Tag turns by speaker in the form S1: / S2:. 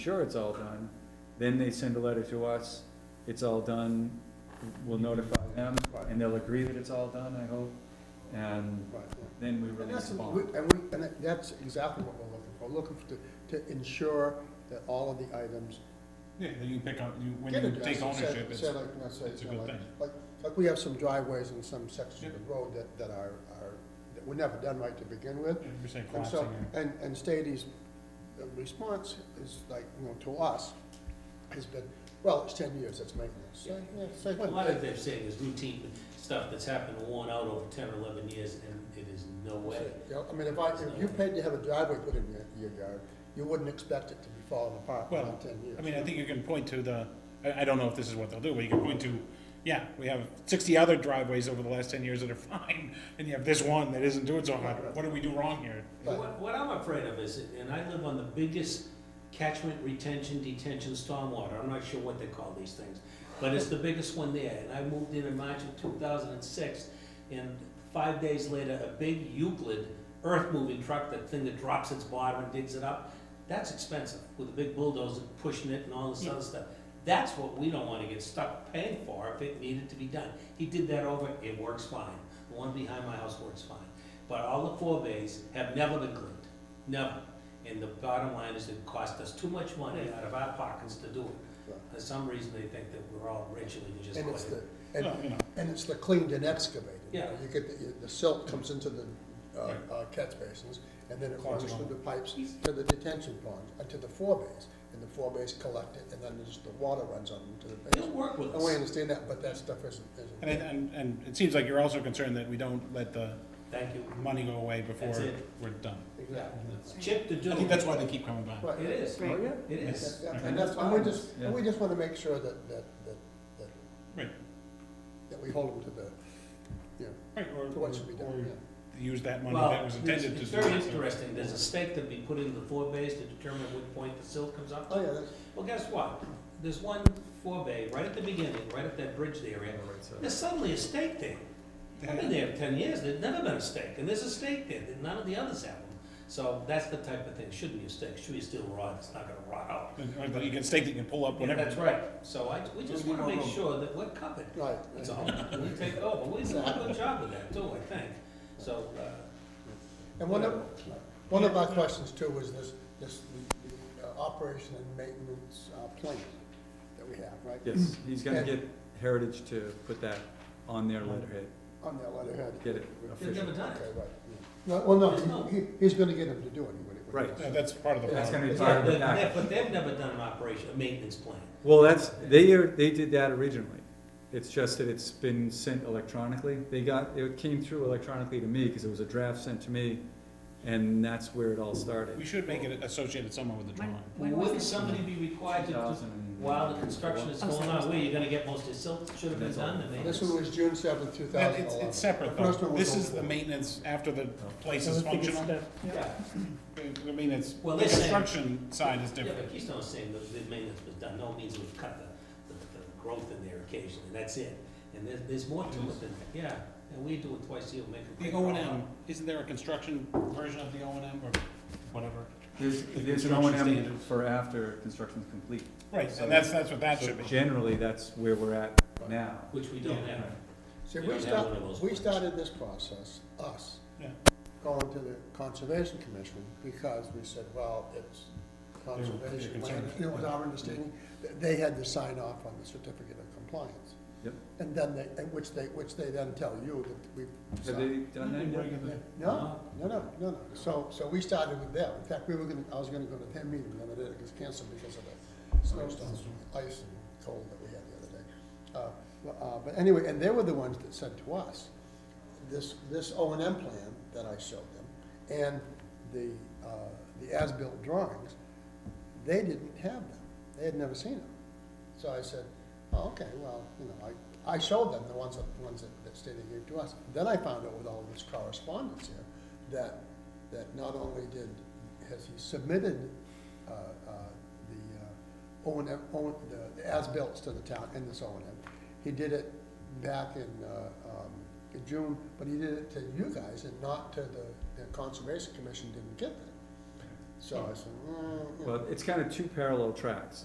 S1: sure it's all done, then they send a letter to us, it's all done, we'll notify them, and they'll agree that it's all done, I hope, and
S2: Right,
S1: then we
S2: yeah. And
S1: release
S2: that's,
S1: the
S2: we-
S1: bond.
S2: and we, and that- that's exactly what we're looking for, looking for, to, to ensure that all of the items
S3: Yeah, then you pick up, you, when
S2: get
S3: you
S2: addressed.
S3: take
S2: and say-
S3: ownership, it's,
S2: say like- not say-
S3: it's a
S2: say
S3: good
S2: like-
S3: thing.
S2: Like, like we have some driveways in some sections of the road that, that are, are, that were never done right to begin with.
S3: You're saying
S2: And
S3: collapsing
S2: so,
S3: it.
S2: and, and Stady's response is like, you know, to us, has been, well, it's ten years, it's maintenance. So, yeah, so
S4: A
S2: what?
S4: lot of they're saying is routine stuff that's happened and worn out over ten or eleven years, and it is no way.
S2: You know, I mean, if I, if you paid to have a driveway put in your, your yard, you wouldn't expect it to be falling apart in
S3: Well,
S2: ten years.
S3: I mean, I think you can point to the, I, I don't know if this is what they'll do, but you can point to, yeah, we have sixty other driveways over the last ten years that are fine, and you have this one that isn't doing so hot, what did we do wrong here?
S2: But-
S4: What, what I'm afraid of is, and I live on the biggest catchment retention, detention, stormwater, I'm not sure what they call these things, but it's the biggest one there, and I moved in in March of two thousand and six, and five days later, a big Euclid earth-moving truck, that thing that drops its bottom and digs it up, that's expensive, with a big bulldozer pushing it and all this other stuff. That's what we don't wanna get stuck paying for if it needed to be done. He did that over, it works fine, the one behind my house works fine. But all the forebays have never been cleaned, never. And the bottom line is it cost us too much money out of our pockets to do it. For some reason, they think that we're all rich and we can just
S2: And it's
S4: quit
S2: the, and,
S4: it.
S3: Well, you know.
S2: and it's the cleaned and excavated.
S4: Yeah.
S2: You get, the- the silt comes into the, uh,
S3: Yeah.
S2: uh, catch basins, and then it
S3: Clogs
S2: runs
S3: them
S2: through
S3: up.
S2: the pipes to the detention pond, uh, to the forebays, and the forebays collect it, and then there's, the water runs on into the
S4: They'll
S2: basement.
S4: work with
S2: And we
S4: us.
S2: understand that, but that stuff isn't,
S3: And, it-
S2: isn't.
S3: and, and it seems like you're also concerned that we don't let the
S4: Thank you.
S3: money go away before
S4: That's it.
S3: we're done.
S4: Yeah,
S2: Exactly.
S4: it's Chip to do.
S3: I think that's why they keep coming back.
S2: Right.
S4: It is,
S1: Oh, yeah,
S4: it
S2: Yeah,
S4: is.
S2: yeah,
S3: Right.
S2: And that's, and we just,
S1: Yeah.
S2: and we just wanna make sure that, that, that, that,
S3: Right,
S2: that we hold them to the, you know,
S3: right, or,
S2: to what should be done,
S3: or
S2: yeah.
S3: use that money
S4: Well,
S3: that was
S4: it's-
S3: intended to.
S4: It's
S3: do
S4: very
S3: that, so-
S4: interesting, there's a stake that we put in the forebays to determine what point the silt comes up to.
S2: Oh, yeah, that's,
S4: Well, guess what? There's one forebay right at the beginning, right at that bridge area. There's suddenly a stake there. I've been there ten years, there's never been a stake, and there's a stake there, that none of the others have them. So that's the type of thing, shouldn't be a stake, should be steel rod, it's not gonna rot out.
S3: Right, But you can stake that you can pull up
S4: Yeah,
S3: whenever.
S4: that's right, so I, we just
S3: We
S4: wanna
S3: don't
S4: make
S3: know.
S4: sure that we're covered.
S2: right.
S4: That's all, we take over, we do a good job with that too, I think, so, uh,
S2: And one of, one of our questions too was this, this the, uh, operation and maintenance uh, plan that we have, right?
S1: Yes, he's gonna
S2: And-
S1: get Heritage to put that on their letterhead,
S2: On that letterhead.
S1: get it
S4: they've
S1: official.
S4: never done
S2: Okay,
S4: it.
S2: right. No, well,
S4: There's no-
S2: no, he, he's gonna get him to do it. when he- when he
S1: Right.
S2: does
S3: Yeah,
S2: it.
S3: That's part of the
S1: That's
S3: problem.
S1: gonna be part
S4: Yeah,
S1: of the
S4: but
S1: package.
S4: they- but they've never done an operation, a maintenance plan.
S1: Well, that's, they, are- they did that originally. It's just that it's been sent electronically. They got, it came through electronically to me, because it was a draft sent to me, and that's where it all
S3: We
S1: started.
S3: should make it associated somewhere with the drawing.
S5: When was
S4: Wouldn't
S5: this?
S4: somebody be required to, do-
S1: 2000.
S4: while the construction is
S5: Oh,
S4: going
S5: sorry.
S4: on, where you're gonna get most of the silt, should have been
S1: That's all.
S4: done, the
S2: This
S4: maintenance.
S2: one was June seventh, two
S3: That,
S2: thousand
S3: it's,
S2: eleven.
S3: it's separate
S2: The first one
S3: though.
S2: was
S3: This is
S2: old.
S3: the maintenance after the place is functional.
S4: Yeah,
S3: I mean, it's, the
S4: Well, they're saying-
S3: construction side is
S4: yeah, but
S3: different.
S4: Keystone's saying that the maintenance was done, no it means we've cut the, the, the growth in there occasionally, that's it. And there's, there's more to it than that, yeah, and we do it twice a year, make a.
S3: The O and M, isn't there a construction version of the O and M or whatever?
S1: There's, there's an O
S3: Construction
S1: and M
S3: standards.
S1: for after construction's complete.
S3: Right,
S1: So-
S3: and that's, that's what that
S1: So
S3: should be.
S1: Generally, that's where we're at now.
S4: Which we don't have.
S2: See,
S4: You
S2: we
S4: don't have
S2: start,
S4: one of those
S2: we
S4: plans.
S2: started this process, us,
S3: Yeah.
S2: going to the Conservation Commission, because we said, well, it's
S3: were- they were
S2: conservation land.
S3: concerned.
S2: You know, it was our understanding, that they had to sign off on the certificate of compliance.
S1: Yep.
S2: And then they, and which they, which they then tell you that we've.
S1: Have
S2: signed.
S1: they done that yet?
S2: No, no, no, no, no. So, so we started with that. In fact, we were gonna, I was gonna go to their meeting the other day. It was canceled because of the snowstorm, ice and cold that we had the other day. Uh, well, Uh, but anyway, and they were the ones that said to us, this, this O and M plan that I showed them and the, uh, the as-built drawings, they didn't have them. They had never seen them. So I said, oh, okay, well, you know, I, I showed them the ones, that- the ones that, that Stady gave to us. Then I found out with all this correspondence here, that, that not only did, has he submitted, uh, uh, the, uh, O and M, O, the, the as-bills to the town in this O and M. He did it back in, uh, um, in June, but he did it to you guys and not to the, the Conservation Commission didn't get that. So I said, mm, mm.
S1: But it's kind of two parallel tracks.